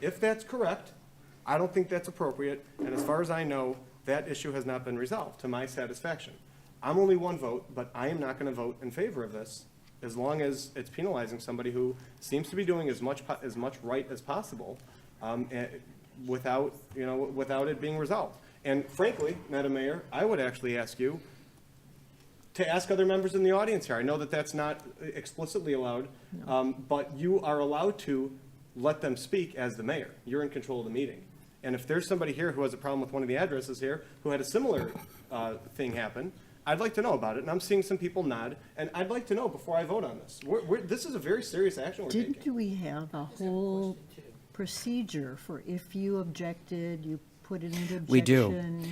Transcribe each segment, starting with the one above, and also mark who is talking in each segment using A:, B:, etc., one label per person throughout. A: If that's correct, I don't think that's appropriate, and as far as I know, that issue has not been resolved to my satisfaction. I'm only one vote, but I am not gonna vote in favor of this, as long as it's penalizing somebody who seems to be doing as much, po- as much right as possible, um, eh, without, you know, without it being resolved. And frankly, Madam Mayor, I would actually ask you, to ask other members in the audience here. I know that that's not explicitly allowed, um, but you are allowed to let them speak as the mayor. You're in control of the meeting. And if there's somebody here who has a problem with one of the addresses here, who had a similar uh, thing happen, I'd like to know about it, and I'm seeing some people nod, and I'd like to know before I vote on this. We're, we're, this is a very serious action we're taking.
B: Didn't we have a whole procedure for if you objected, you put it into objection?
C: We do.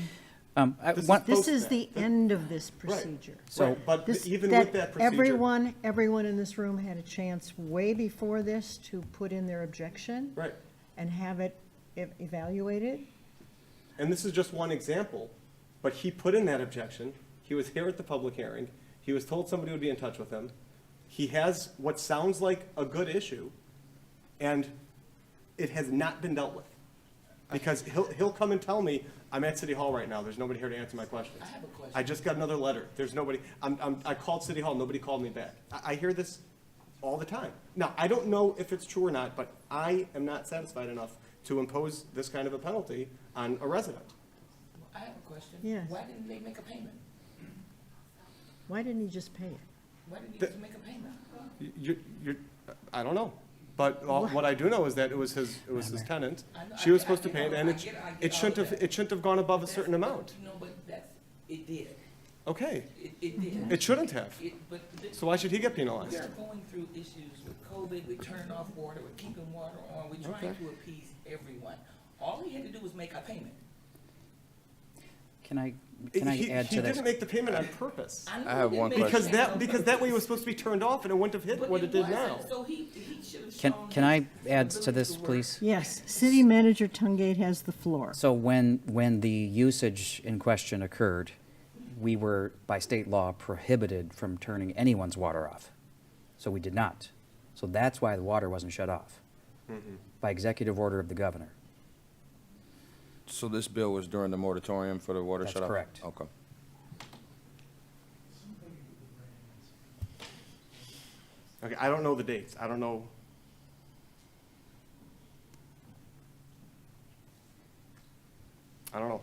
C: Um, I-
A: This is-
C: one-
B: This
A: Post
B: is
A: that.
B: the end of this procedure.
A: So, but
B: This-
A: even with that procedure.
B: Everyone, everyone in this room had a chance way before this to put in their objection.
A: Right.
B: And have it e- evaluated.
A: and this is just one example, but he put in that objection. He was here at the public hearing. He was told somebody would be in touch with him. He has what sounds like a good issue, and it has not been dealt with. Because he'll, he'll come and tell me, I'm at City Hall right now, there's nobody here to answer my questions. I have a question. I just got another letter, there's nobody, I'm, I'm, I called City Hall, nobody called me back. I, I hear this all the time. Now, I don't know if it's true or not, but I am not satisfied enough to impose this kind of a penalty on a resident.
D: I have a question.
B: Yes.
D: Why didn't they make a payment?
B: Why didn't he just pay it?
D: Why didn't you
A: The-
D: just make a payment?
A: You, you, I don't know, but all- what I do know is that it was his, it was his tenant. She was supposed to pay it, and it, sh- it shouldn't have, it shouldn't have gone above a certain amount.
D: No, but that's, it did.
A: Okay,
D: It, it did.
A: it shouldn't have.
D: It, but this,
A: So why should he get penalized?
D: we're going through issues with COVID, we're turning off water, we're keeping water on, we're trying to appease everyone. All he had to do was make a payment.
C: Can I, can I
A: He-
C: add
A: He
C: to this?
A: didn't make the payment on purpose.
D: know
E: I
D: he
E: have
D: didn't
E: one
D: make a
A: Because
D: payment
A: that,
D: on
A: because that way it was supposed
D: purpose,
A: to be turned off and it wouldn't have hit
D: but
A: what it did
D: wasn't.
A: now.
D: So he, he should have
C: Can,
D: shown
C: can
D: his
C: I add to
D: ability
C: this,
D: work.
C: please?
B: Yes, City Manager Tungate has the floor.
C: So when, when the usage in question occurred, we were, by state law, prohibited from turning anyone's water off. So we did not. So that's why the water wasn't shut off, by executive order of the governor.
E: So this bill was during the moratorium for the water
C: That's
E: shut-off?
C: correct.
E: Okay.
A: Okay, I don't know the dates. I don't know. I don't know.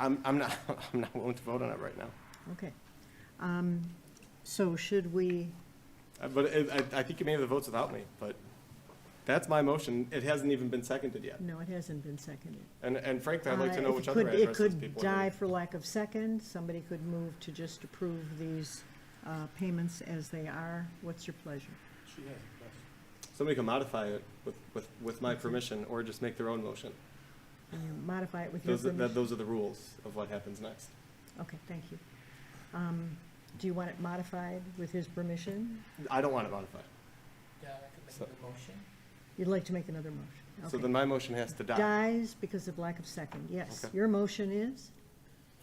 A: I'm, I'm not, I'm not willing to vote on it right now.
B: Okay. Um, So should we,
A: Uh, But it- I, I think you may have the votes without me, but that's my motion. It hasn't even been seconded yet.
B: no, it hasn't been seconded.
A: And, and frankly, I'd like to know
B: Uh,
A: which
B: it
A: other
B: could-
A: addresses
B: It could
A: people are
B: die
A: doing.
B: for lack of second, somebody could move to just approve these uh, payments as they are. What's your pleasure?
A: Somebody can modify it with, with, with my permission or just make their own motion.
B: Can you modify it with your
A: Those, are- that,
B: permission?
A: those are the rules of what happens next.
B: Okay, thank you. Um, Do you want it modified with his permission?
A: I don't want to modify.
D: Yeah, I could make
A: So-
D: the motion.
B: You'd like to make another motion?
A: So
B: Okay.
A: then my motion has to die.
B: Dies because of lack of second, yes.
A: Okay.
B: Your motion is?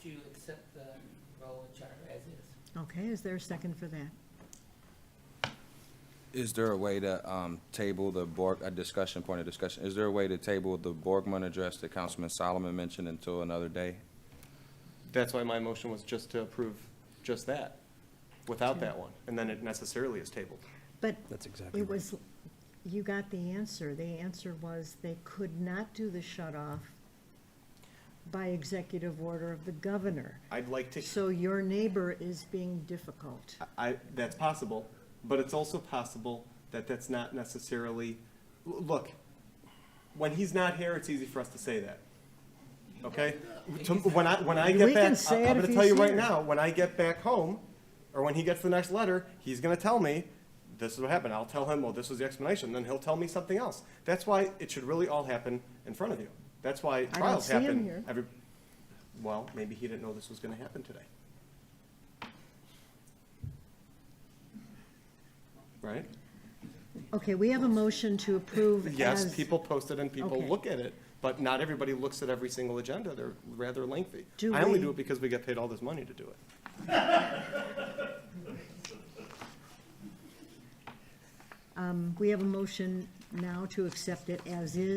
D: Do you accept the role of charter as is?
B: Okay, is there a second for that?
E: Is there a way to um, table the Borg, a discussion, point of discussion, is there a way to table the Borgman address that Councilman Solomon mentioned until another day?
A: That's why my motion was just to approve just that, without that one, and then it necessarily is tabled.
B: But
C: That's exactly
B: it
C: right.
B: was, you got the answer. The answer was they could not do the shut-off by executive order of the governor.
A: I'd like to,
B: So your neighbor is being difficult.
A: I, that's possible, but it's also possible that that's not necessarily, l- look, when he's not here, it's easy for us to say that, okay? To- When I, when I
B: We
A: get
B: can
A: back,
B: say
A: I-
B: it
A: I'm
B: if
A: gonna tell you
B: he's
A: right
B: here.
A: now, when I get back home, or when he gets the next letter, he's gonna tell me, this is what happened, I'll tell him, well, this was the explanation, then he'll tell me something else. That's why it should really all happen in front of you. That's why
B: don't
A: trials
B: see him
A: happen.
B: here.
A: every- Well, maybe he didn't know this was gonna happen today. Right?
B: Okay, we have a motion to approve as.
A: Yes, people post it and people
B: Okay.
A: look at it, but not everybody looks at every single agenda. They're rather lengthy.
B: Do
A: I only
B: we-
A: do it because we get paid all this money to do it.
B: We have a motion now to accept it as is.